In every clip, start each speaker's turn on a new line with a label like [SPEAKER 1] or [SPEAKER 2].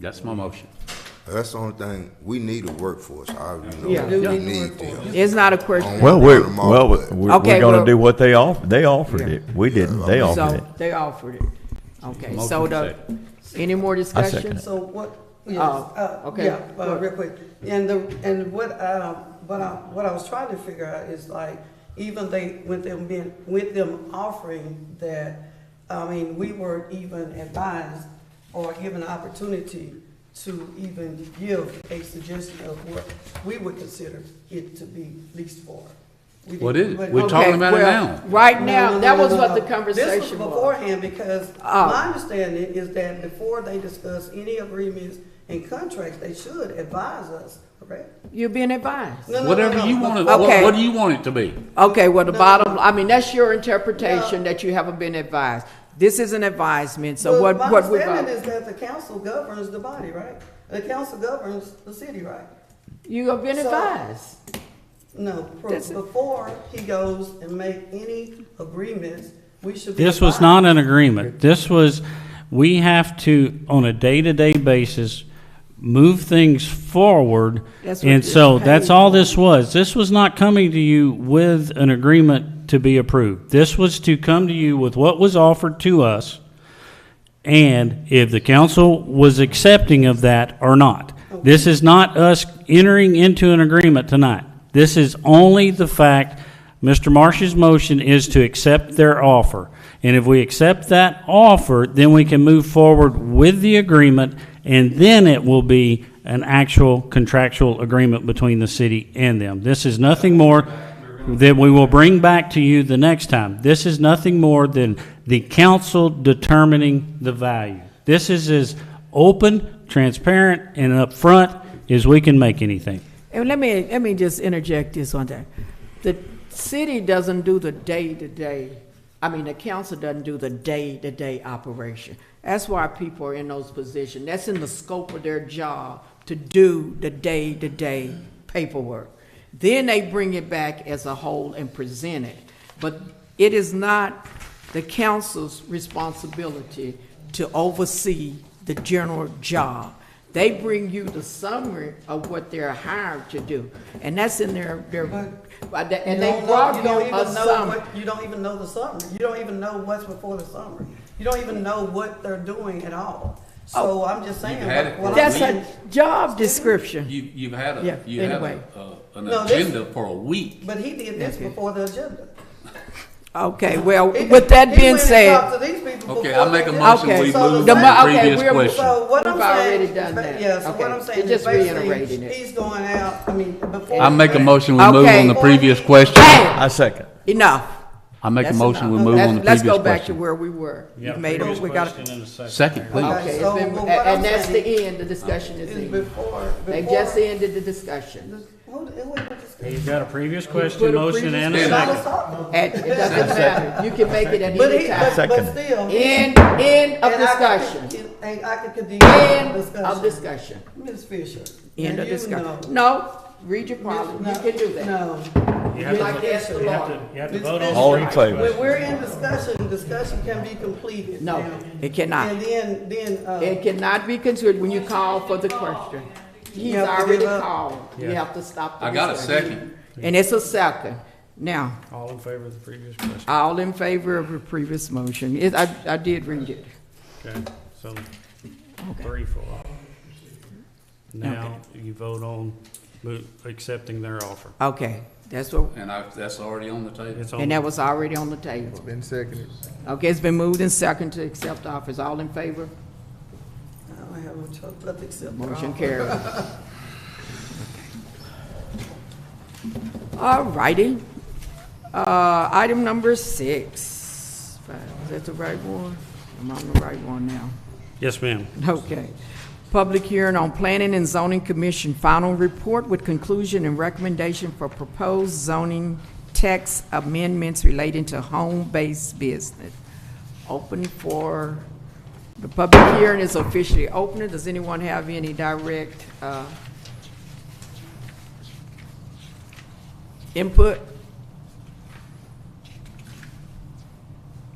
[SPEAKER 1] That's my motion.
[SPEAKER 2] That's the only thing, we need a workforce, I, you
[SPEAKER 3] Yeah.
[SPEAKER 2] know,
[SPEAKER 3] Yeah.
[SPEAKER 2] we need them.
[SPEAKER 3] It's not a question.
[SPEAKER 4] Well, we're,
[SPEAKER 2] Bottom off,
[SPEAKER 4] well,
[SPEAKER 2] but-
[SPEAKER 4] we're, we're
[SPEAKER 3] Okay,
[SPEAKER 4] gonna
[SPEAKER 3] well-
[SPEAKER 4] do what they offered. They offered
[SPEAKER 3] Yeah.
[SPEAKER 4] it. We didn't. They offered it.
[SPEAKER 3] So they offered it. Okay,
[SPEAKER 1] Motion
[SPEAKER 3] so the, any more discussion?
[SPEAKER 4] second
[SPEAKER 5] So what, yes,
[SPEAKER 3] Oh,
[SPEAKER 5] uh,
[SPEAKER 3] okay.
[SPEAKER 5] yeah, uh, real quick, and the, and what, um, what I, what I was trying to figure out is like, even they, with them being, with them offering that, I mean, we weren't even advised or given an opportunity to even give a suggestion of what we would consider it to be leased for. We
[SPEAKER 1] What
[SPEAKER 5] didn't-
[SPEAKER 1] is it?
[SPEAKER 5] but-
[SPEAKER 1] We're
[SPEAKER 5] Okay.
[SPEAKER 1] Talking about it
[SPEAKER 3] well,
[SPEAKER 1] now.
[SPEAKER 3] Right
[SPEAKER 5] No,
[SPEAKER 3] now,
[SPEAKER 5] no,
[SPEAKER 3] that
[SPEAKER 5] no,
[SPEAKER 3] was
[SPEAKER 5] no,
[SPEAKER 3] what
[SPEAKER 5] no.
[SPEAKER 3] the conversation
[SPEAKER 5] This was
[SPEAKER 3] was.
[SPEAKER 5] beforehand, because
[SPEAKER 3] Oh.
[SPEAKER 5] my understanding is that before they discuss any agreements and contracts, they should advise us, correct?
[SPEAKER 3] You're being advised.
[SPEAKER 5] No, no, no,
[SPEAKER 1] Whatever
[SPEAKER 5] no.
[SPEAKER 1] you want it, what,
[SPEAKER 3] Okay.
[SPEAKER 1] what do you want it to be?
[SPEAKER 3] Okay, well, the
[SPEAKER 5] No,
[SPEAKER 3] bottom,
[SPEAKER 5] no.
[SPEAKER 3] I mean, that's your interpretation that you haven't been advised. This is an advisement, so
[SPEAKER 5] But
[SPEAKER 3] what,
[SPEAKER 5] My
[SPEAKER 3] what we,
[SPEAKER 5] understanding is that the council governs the body, right? The council governs the city, right?
[SPEAKER 3] you have been
[SPEAKER 5] So-
[SPEAKER 3] advised.
[SPEAKER 5] No, pro-
[SPEAKER 3] That's it.
[SPEAKER 5] before he goes and make any agreements, we should be.
[SPEAKER 6] This was
[SPEAKER 5] advised.
[SPEAKER 6] not an agreement. This was, we have to, on a day-to-day basis, move things forward.
[SPEAKER 3] That's what
[SPEAKER 6] And
[SPEAKER 3] this
[SPEAKER 6] so
[SPEAKER 3] page
[SPEAKER 6] that's all this was. This was not coming to you with an agreement to be approved. This was to come to you with what was offered to us and if the council was accepting of that or not. This is not us entering into an agreement tonight. This is only the fact, Mr. Marsh's motion is to accept their offer. And if we accept that offer, then we can move forward with the agreement, and then it will be an actual contractual agreement between the city and them. This is nothing more that we will bring back to you the next time. This is nothing more than the council determining the value. This is as open, transparent, and upfront as we can make anything.
[SPEAKER 3] And let me, let me just interject this one thing. The city doesn't do the day-to-day, I mean, the council doesn't do the day-to-day operation. That's why people are in those positions. That's in the scope of their job, to do the day-to-day paperwork. Then they bring it back as a whole and present it. But it is not the council's responsibility to oversee the general job. They bring you the summary of what they're hired to do, and that's in their, their, and they- and
[SPEAKER 5] You
[SPEAKER 3] they
[SPEAKER 5] don't know-
[SPEAKER 3] brought
[SPEAKER 5] you don't
[SPEAKER 3] you
[SPEAKER 5] even
[SPEAKER 3] a
[SPEAKER 5] know
[SPEAKER 3] summary.
[SPEAKER 5] what- You don't even know the summary. You don't even know what's before the summary. You don't even know what they're doing at all. So I'm just saying.
[SPEAKER 1] You've had
[SPEAKER 5] like,
[SPEAKER 1] it
[SPEAKER 5] what
[SPEAKER 1] for a
[SPEAKER 5] I'm
[SPEAKER 3] Oh. That's
[SPEAKER 5] saying-
[SPEAKER 3] a job description.
[SPEAKER 1] You, you've had
[SPEAKER 3] Yeah,
[SPEAKER 1] a, you had
[SPEAKER 3] anyway.
[SPEAKER 1] a, a- an
[SPEAKER 5] No, this-
[SPEAKER 1] agenda for a week.
[SPEAKER 5] But he did this
[SPEAKER 3] Okay.
[SPEAKER 5] before the agenda.
[SPEAKER 3] Okay, well,
[SPEAKER 5] He-
[SPEAKER 3] with that
[SPEAKER 5] he
[SPEAKER 3] being
[SPEAKER 5] went and
[SPEAKER 3] said,
[SPEAKER 5] talked to these people
[SPEAKER 1] Okay,
[SPEAKER 5] before
[SPEAKER 1] I make a
[SPEAKER 5] they did-
[SPEAKER 1] motion,
[SPEAKER 3] Okay.
[SPEAKER 1] we
[SPEAKER 5] So the
[SPEAKER 1] move
[SPEAKER 5] mo-
[SPEAKER 1] the
[SPEAKER 5] okay,
[SPEAKER 1] previous
[SPEAKER 3] we're-
[SPEAKER 1] question.
[SPEAKER 5] So what I'm
[SPEAKER 3] We've
[SPEAKER 5] saying.
[SPEAKER 3] already done that.
[SPEAKER 5] Yeah, so what
[SPEAKER 3] Okay.
[SPEAKER 5] I'm
[SPEAKER 3] It
[SPEAKER 5] saying is
[SPEAKER 3] just
[SPEAKER 5] basically,
[SPEAKER 3] reiterating it.
[SPEAKER 5] he's going out, I mean, before.
[SPEAKER 1] I make a motion, we move
[SPEAKER 3] Okay.
[SPEAKER 1] on the previous question.
[SPEAKER 3] hey,
[SPEAKER 4] I second.
[SPEAKER 3] enough.
[SPEAKER 1] I make a
[SPEAKER 3] That's
[SPEAKER 1] motion, we
[SPEAKER 3] enough.
[SPEAKER 1] move
[SPEAKER 3] Let's-
[SPEAKER 1] on the
[SPEAKER 3] Let's go
[SPEAKER 1] previous
[SPEAKER 3] back to
[SPEAKER 1] question.
[SPEAKER 3] where we were. You made it, we got, okay,
[SPEAKER 1] Second, please.
[SPEAKER 3] it's
[SPEAKER 5] So,
[SPEAKER 3] been-
[SPEAKER 5] but
[SPEAKER 3] and
[SPEAKER 5] what I'm
[SPEAKER 3] and that's the
[SPEAKER 5] saying
[SPEAKER 3] end, the discussion is
[SPEAKER 5] Is
[SPEAKER 3] ended.
[SPEAKER 5] before,
[SPEAKER 3] They
[SPEAKER 5] before-
[SPEAKER 3] just ended the discussion.
[SPEAKER 5] Who- who was discussing?
[SPEAKER 6] You've got a previous
[SPEAKER 3] put a
[SPEAKER 6] question, motion,
[SPEAKER 3] previous
[SPEAKER 6] and a
[SPEAKER 1] question.
[SPEAKER 6] second.
[SPEAKER 5] I was talking.
[SPEAKER 3] And it doesn't matter, you can make it at
[SPEAKER 5] But
[SPEAKER 3] any
[SPEAKER 5] he, but,
[SPEAKER 3] time.
[SPEAKER 5] but
[SPEAKER 4] Second.
[SPEAKER 5] still.
[SPEAKER 3] End, end of
[SPEAKER 5] and I could
[SPEAKER 3] discussion.
[SPEAKER 5] continue- And I could continue
[SPEAKER 3] End
[SPEAKER 5] the
[SPEAKER 3] of
[SPEAKER 5] discussion.
[SPEAKER 3] discussion.
[SPEAKER 5] Ms. Fisher.
[SPEAKER 3] End
[SPEAKER 5] now
[SPEAKER 3] of
[SPEAKER 5] you
[SPEAKER 3] discussion.
[SPEAKER 5] know-
[SPEAKER 3] No, read your problem, you
[SPEAKER 5] No,
[SPEAKER 3] can do that.
[SPEAKER 5] No.
[SPEAKER 6] You
[SPEAKER 3] have to Like vote- yes to you have Lord. to-
[SPEAKER 6] You have
[SPEAKER 5] Ms. Fisher,
[SPEAKER 4] All in favor?
[SPEAKER 5] When we're in discussion, discussion can be completed.
[SPEAKER 3] No,
[SPEAKER 5] now.
[SPEAKER 3] it cannot.
[SPEAKER 5] And then, then, uh.
[SPEAKER 3] It cannot be considered when you call for the question. He's
[SPEAKER 5] have to give
[SPEAKER 3] already
[SPEAKER 5] up.
[SPEAKER 3] called, you
[SPEAKER 6] Yeah.
[SPEAKER 3] have to stop the
[SPEAKER 1] I got a
[SPEAKER 3] discussion.
[SPEAKER 1] second.
[SPEAKER 3] And it's a second. Now,
[SPEAKER 6] All in favor of the previous question.
[SPEAKER 3] all in favor of the previous motion, It- I, I did read it.
[SPEAKER 6] Okay, so three for all. Now, you vote on mo- accepting their offer.
[SPEAKER 3] Okay, that's what,
[SPEAKER 1] And I, that's already on the table.
[SPEAKER 6] It's on-
[SPEAKER 3] and that was already on the table.
[SPEAKER 7] Been seconded.
[SPEAKER 3] Okay, it's been moved and second to accept office, all in favor?
[SPEAKER 5] I don't have much choice but to accept. the
[SPEAKER 3] Motion
[SPEAKER 5] offer.
[SPEAKER 3] carried. All righty. Uh, item number six. Is that the right one? I'm on the right one now.
[SPEAKER 6] Yes, ma'am.
[SPEAKER 3] Okay. Public hearing on Planning and Zoning Commission final report with conclusion and recommendation for proposed zoning text amendments relating to home-based business. Open for, the public hearing is officially open. Does anyone have any direct, uh, input?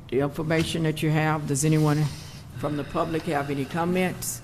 [SPEAKER 3] The information that you have, does anyone from the public have any comments?